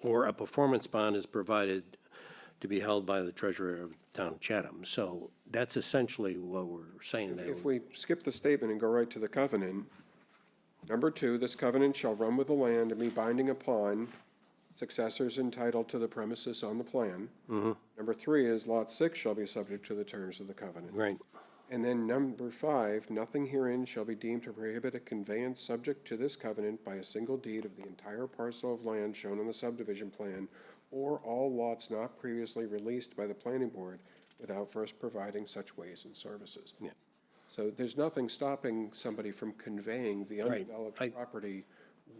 or a performance bond is provided to be held by the treasurer of the town of Chatham. So that's essentially what we're saying there. If we skip the statement and go right to the covenant, number two, this covenant shall run with the land and be binding upon successors entitled to the premises on the plan. Number three is lot six shall be subject to the terms of the covenant. Right, And then number five, nothing herein shall be deemed to prohibit a conveyance subject to this covenant by a single deed of the entire parcel of land shown on the subdivision plan or all lots not previously released by the planning board without first providing such ways and services. yeah. So there's nothing stopping somebody from conveying the Right. I- undeveloped property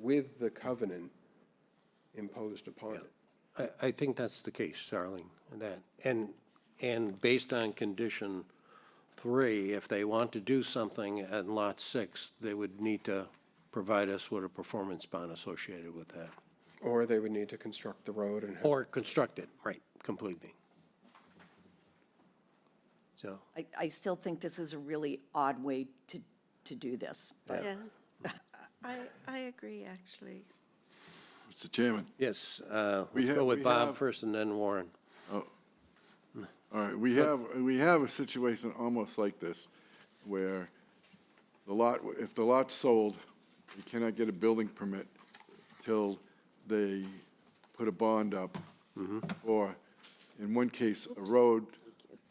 with the covenant imposed upon it. I, I think that's the case, Starling, that, and, and based on condition three, if they want to do something at lot six, they would need to provide us with a performance bond associated with that. Or they would need to construct the road and, Or construct it, right, completely. So, I, I still think this is a really odd way to, to do this. but- Yeah. I, I agree, actually. Mr. Chairman, yes, uh, We let's ha- go with we Bob have- first and then Warren. all right, we have, we have a situation almost like this, where the lot, if the lot's sold, you cannot get a building permit till they put a bond up, or, in one case, a road,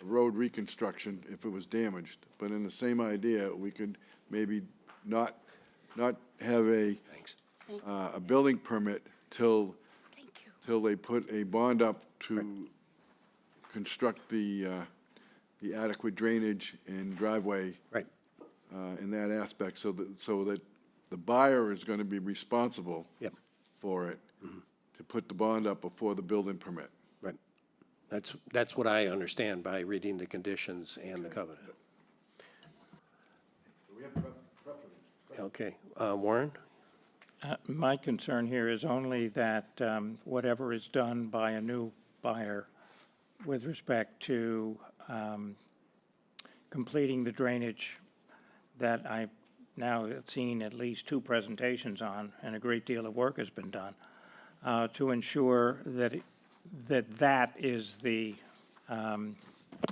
a road reconstruction if it was damaged. But in the same idea, we could maybe not, not have a, Thanks. uh, a building permit till Thank you. till they put a bond up to construct the, uh, the adequate drainage and driveway Right, uh, in that aspect, so that, so that the buyer is going to be responsible Yep. for it, to put the bond up before the building permit. right. That's, that's what I understand by reading the conditions and the covenant. Okay, uh, Warren? Uh, My concern here is only that um, whatever is done by a new buyer with respect to um, completing the drainage that I've now seen at least two presentations on, and a great deal of work has been done, uh, to ensure that, it- that that is the um,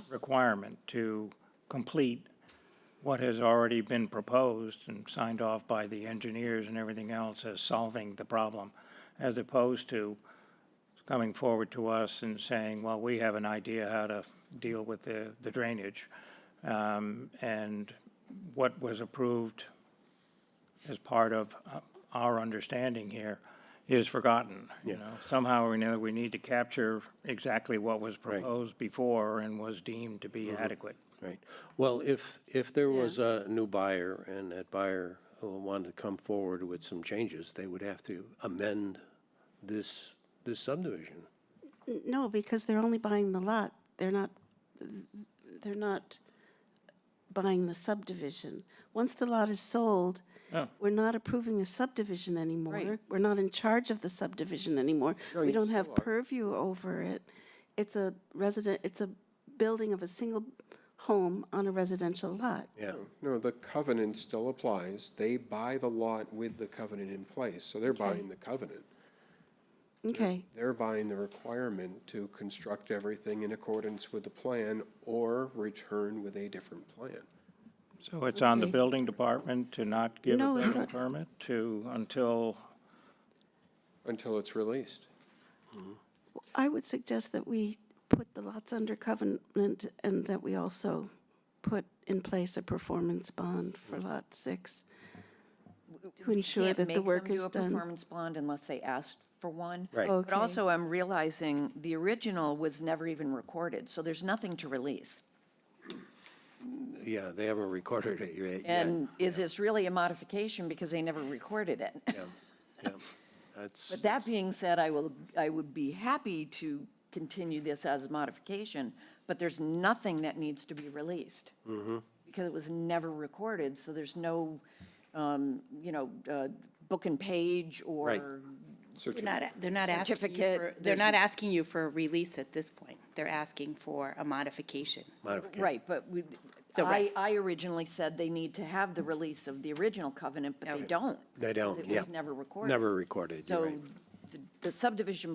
requirement to complete what has already been proposed and signed off by the engineers and everything else as solving the problem, as opposed to coming forward to us and saying, well, we have an idea how to deal with the, the drainage. Um, and what was approved as part of uh, our understanding here is forgotten, you know? Somehow or another, we need to capture exactly what was proposed before and was deemed to be adequate. Right. Well, if, if there was a new buyer and that buyer uh, wanted to come forward with some changes, they would have to amend this, this subdivision. N- No, because they're only buying the lot. They're not, they're not buying the subdivision. Once the lot is sold, we're not approving the subdivision anymore. We're not in charge of the subdivision anymore. We don't have purview over it. It's a resident, it's a building of a single home on a residential lot. Yeah, Oh. no, the covenant still applies. They buy the lot with the covenant in place, so they're buying the covenant. Okay, They're buying the requirement to construct everything in accordance with the plan or return with a different plan. So it's on the Okay. building department to not give a No, it's building not. permit to, until, Until it's released. I would suggest that we put the lots under covenant and that we also put in place a performance bond for lot six. To Mm. We ensure can't that make the them work do is a done. Performance bond unless they asked for one. Right. But also, I'm realizing the original was never even recorded, so there's nothing to release. yeah, they haven't recorded it yet. And is this really a modification because they never recorded it? Yeah, yeah. That's, But that being said, I will, I would be happy to continue this as a modification, but there's nothing that needs to be released. Mm-hmm. Because it was never recorded, so there's no, um, you know, uh, book and page or They're not, they're not asking you for, Certificate, they're there's- not asking you for a release at this point. They're asking for a modification. modification. Right, but we, So, I, right. I originally said they need to have the release of the original covenant, but they don't. They because don't, yeah. It was never recorded. Never recorded, you're So right. the- the subdivision